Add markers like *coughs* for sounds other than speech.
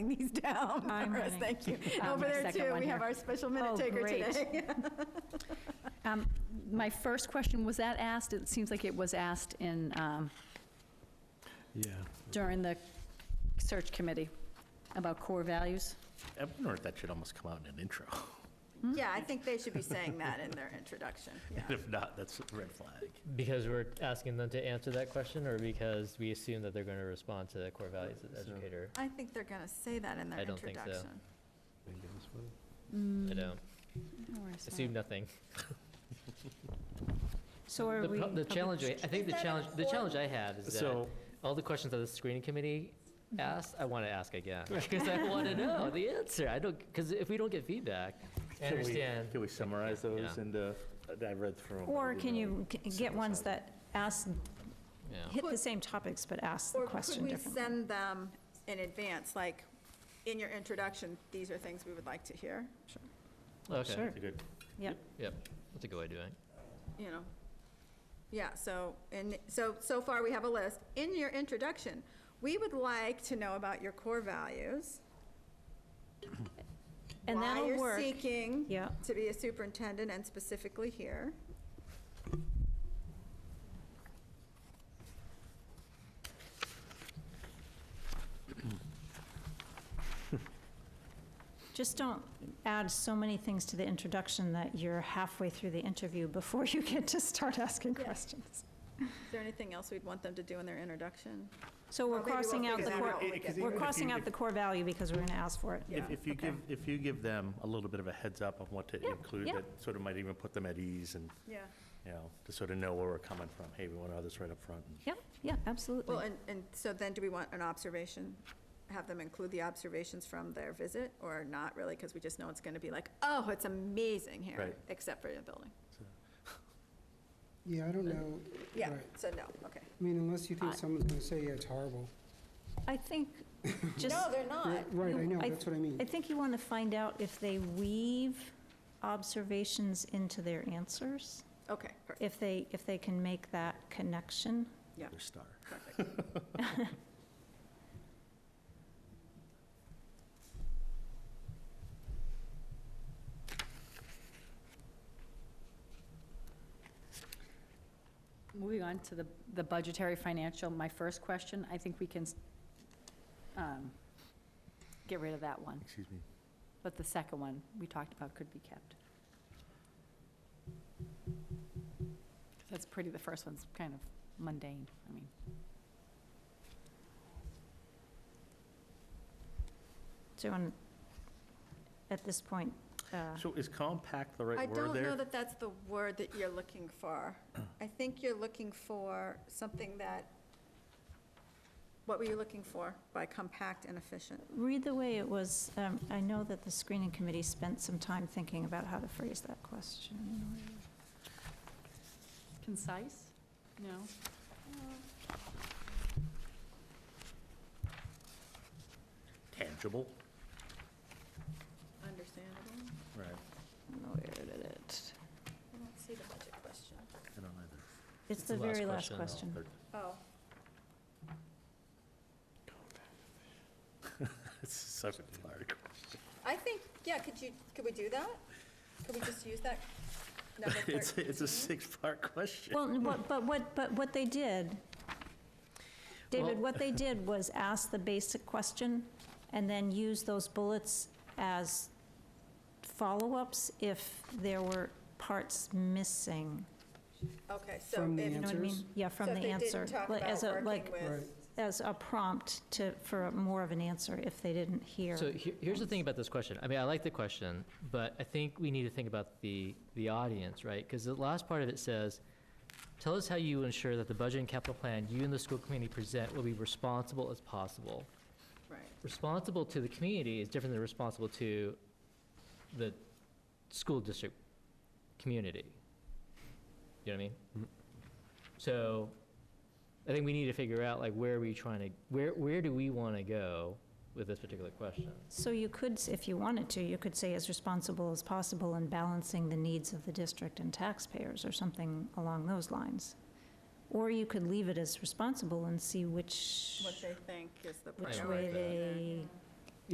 writing these down I'm for us, writing. thank you. And *laughs* Um, Over my there second too, one we have here. our special Oh, minute taker great. *laughs* today. Um, My first question, was that asked, it seems like it was asked in, um, Yeah. during the search committee about core values? I wonder if that should almost come out in an intro. Yeah, I think they should be saying that in their introduction, *laughs* yeah. If not, that's a red flag. Because we're asking them to answer that question, or because we assume that they're going to respond to the core values as So- educator? I think they're gonna say that in their I don't think so. introduction. Mm-hmm. I don't. Assume nothing. So are The we, pro- The challenge, I I think the Is that challenge, the important? challenge I have is that So, all the questions that the screening committee Mm-hmm. asked, I want to ask again. Because I want to know the answer. I don't, because if we don't get feedback, I Can we- understand. Can we summarize those Yeah. and, uh, I read through 'em, but Or we can don't- you g- get ones that ask, Yeah. hit the same topics, but ask the question Or could we differently? send them in advance, like, in your introduction, these are things we would like to hear? Sure. Oh, Okay, sure. that's a good- Yep. Yep, that's a good way of doing it. you know. Yeah, so, and, so, so far we have a list. In your introduction, we would like to know about your core values. *coughs* And that'll Why you're work. seeking Yeah, to be a superintendent and specifically here. just don't add so many things to the introduction that you're halfway through the interview before you get to start asking Yeah. questions. Is there anything else we'd want them to do in their introduction? So Oh, we're Or Oh, maybe we'll crossing out figure the that core, out when we get Even we're if you- crossing if- out the core value because we're going to ask for it. Yeah, If, if you okay. give, if you give them a little bit of a heads up on what to include, yeah. that sort of might even put them at ease and, Yeah. you know, to sort of know where we're coming from. Hey, we want to have this right up front. and- Yeah, yeah, Well, absolutely. and, and so then do we want an observation? Have them include the observations from their visit or not really? Because we just know it's going to be like, oh, it's amazing here, Right. except for the building. Yeah, I don't know. Yeah, Right. so no, okay. I mean, unless you think I- someone's going to say, yeah, it's horrible. *laughs* I think just. No, they're not. Right, I know, I- that's what I mean. I think you want to find out if they weave observations into their answers, Okay, perfect, if they, if they can make that connection. Their star. perfect. moving on to the, the budgetary financial, my first question, I think we can um, get rid of that one, Excuse me. but the second one we talked about could be kept. That's pretty, the first one's kind of mundane, I mean. So you want, at this point, uh, So is compact the I right word don't know there? that that's the word that you're looking *clears throat* for. I think you're looking for something that, what were you looking for by compact and efficient? read the way it was, um, I know that the screening committee spent some time thinking about how to phrase that Mm-hmm. question. Concise? No? Tangible? Understandable? Right. I don't know where did it, I don't see the budget question. I don't either. *laughs* it's the very last question. Third. Oh, It's such a hard question. I think, yeah, could you, could we do that? Could we just use that number *laughs* It's, it's 13? a six-part question. Well, n- what- but what, but what they did, David, what *laughs* they did was ask the basic question and then use those bullets as follow-ups if there were parts missing. Okay, so From the if, You know what I mean? Answers? Yeah, from the So answer. if they didn't talk like, as about a working like with, As a prompt to, for a- more of an answer if they didn't hear. So he- here's the thing about this question. I mean, I like the question, but I think we need to think about the, the audience, right? Because the last part of it says, tell us how you ensure that the budget and capital plan you and the school community present will be responsible as possible. right, Responsible to the community is different than responsible to the school district community. You know what I mean? So I think we need to figure out like where are we trying to, where, where do we want to go with this particular question? So you could, s- if you wanted to, you could say as responsible as possible in balancing the needs of the district and taxpayers or something along those lines. Or you could leave it as responsible and see which, what they think is the which don't priority. like that. way they